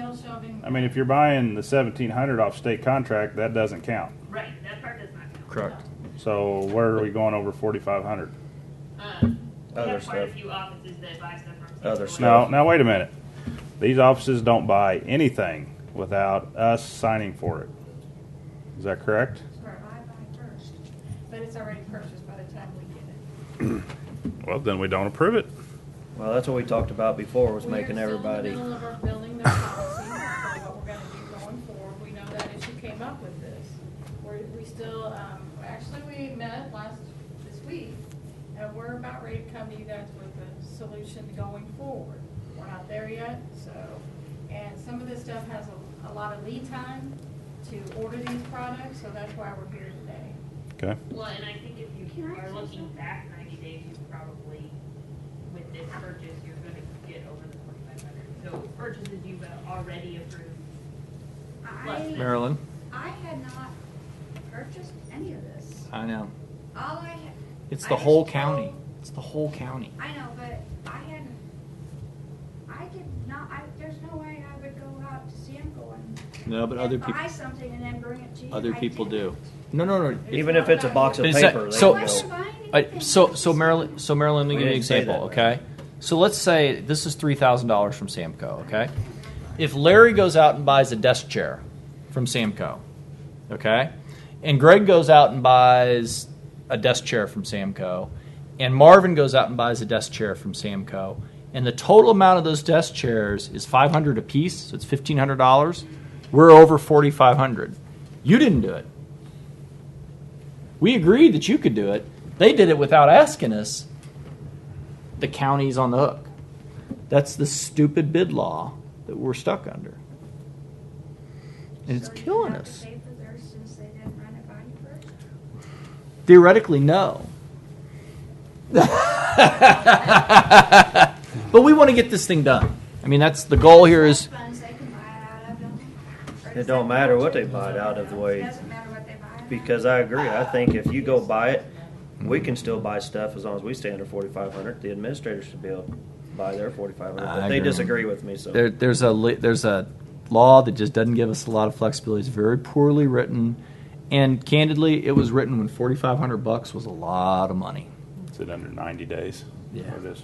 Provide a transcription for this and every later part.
building. I mean, if you're buying the seventeen hundred off state contract, that doesn't count. Right, that part does not count. Correct. So where are we going over forty-five hundred? Um, We Other have quite a stuff. few offices that buy stuff from. Other Safeway. stuff. Now, now wait a minute. These offices don't buy anything without us signing for it. Is that correct? Sure, I buy first, but it's already purchased by the time we get it. Well, then we don't approve it. Well, that's what we talked about before, was We are still in making the everybody, middle of our building their policy for what we're gonna do going forward. We know that issue came up with this. We're, we still, um, actually, we met last, this week, and we're about ready to come to you guys with a solution going forward. We're not there yet, so, and some of this stuff has a, a lot of lead time to order these products, so that's why we're here today. Okay. Well, and I think if you Can I are say looking something? back ninety days, you probably, with this purchase, you're gonna get over the forty-five hundred. So purchases you've already approved. plus I- this. Marilyn, I had not purchased any of this. I know. All I had. It's I the was whole told- county. It's the whole county. I know, but I hadn't, I did not, I, there's no way I would go out to Samco and. No, but other and people, Buy something and then bring it to you. other I people didn't. do. No, no, no. Even if it's a box of But it's not- paper, they I so- will. wasn't buying I, anything. Uh, so, so Marilyn, so Marilyn, let me We give you an didn't say example, that, right? okay? So let's say this is three thousand dollars from Samco, okay? If Larry goes out and buys a desk chair from Samco, okay, and Greg goes out and buys a desk chair from Samco, and Marvin goes out and buys a desk chair from Samco, and the total amount of those desk chairs is five hundred apiece, so it's fifteen hundred dollars. We're over forty five hundred. You didn't do it. We agreed that you could do it. They did it without asking us. The county's on the hook. That's the stupid bid law that we're stuck under. And it's So you killing have to us. pay for theirs since they didn't run it by you first? Theoretically, no. but we want to get this thing done. I mean, that's the goal here is Trust funds they can buy it out of, don't they? Or It does don't that matter what go they to- buy it out of the way. Doesn't matter what they buy it out of. Because I agree, I think if you go buy it, we can still buy stuff as long as we stay under forty-five hundred. The administrators should be able to buy their forty-five hundred, I but they agree. disagree with me, so. there, there's a li- there's a law that just doesn't give us a lot of flexibility. It's very poorly written, and candidly, it was written when 4,500 bucks was a lot of money. It's in under ninety days. Yeah. It is.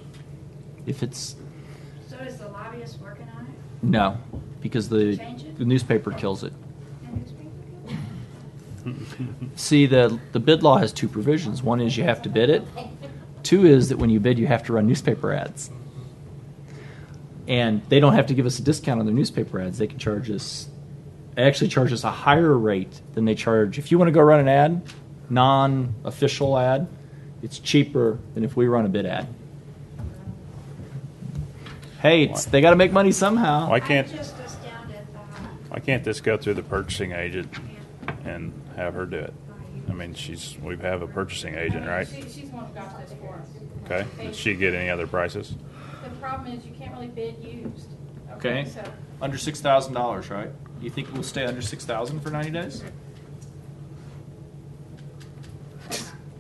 If it's So is the lobbyist working on it? no, because the, Change it? the newspaper kills it. The newspaper people? See, the the bid law has two provisions. One is you have to bid it. Two is that when you bid, you have to run newspaper ads. And they don't have to give us a discount on their newspaper ads. They can charge us. They actually charge us a higher rate than they charge. If you want to go run an ad, non-official ad, it's cheaper than if we run a bid ad. Hey, it's, they got to make money somehow. Why can't I'm just astounded uh, by, why can't this go through the purchasing agent yeah, and have her do it? by I you. mean, she's we have a purchasing agent, right? She, she's the one who got this for us. Okay. Did she get any other prices? The problem is you can't really bid used. Okay. So Under six thousand dollars, right? Do you think we'll stay under six thousand for ninety days?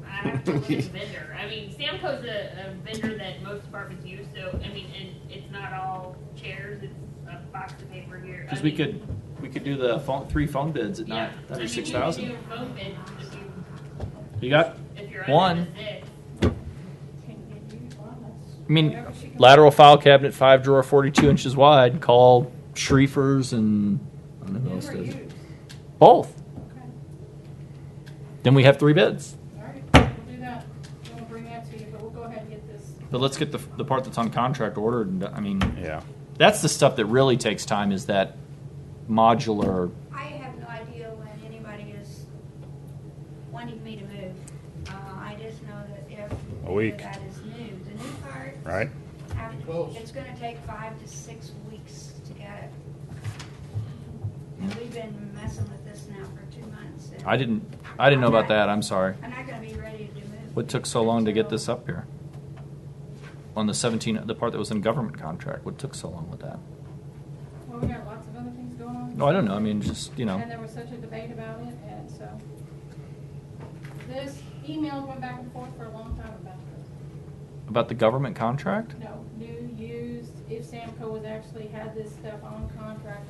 I have to look at the vendor. I mean, Samco's a, a vendor that most departments use, so, I mean, and it's not all chairs, it's a box of paper here. I Because we mean, could, we could do the phone, three phone bids at Yeah. nine, I mean, under you six could do thousand. a phone bid if you- You got? if you're One. under the six. can you bid used? Well, that's I mean, whatever she can- lateral file cabinet, five drawer, forty-two inches wide, call Schrieffer's and, I don't know New who else or it is. used? Both. Okay. Then we have three bids. All right, we'll do that. Then We'll bring that to you, but we'll go ahead and get this. But let's get the, the part that's on contract ordered and, I mean, Yeah. that's the stuff that really takes time is that modular, I have no idea when anybody is wanting me to move. Uh, I just know that every. A week. That is new. The new part. Right. have- It's gonna take five to six weeks to get it. And we've been messing with this now for two months. and- I didn't, I didn't know about that, I'm sorry. I'm not gonna be ready to move. What took so long to get this up here? On the seventeen, the part that was in government contract, what took so long with that? Well, we got lots of other things going on. No, Oh, I don't know. I mean, just you know, And there was such a debate about it, and so. This email went back and forth for a long time about this. about the government contract. No, new, used, if Samco was actually had this stuff on contract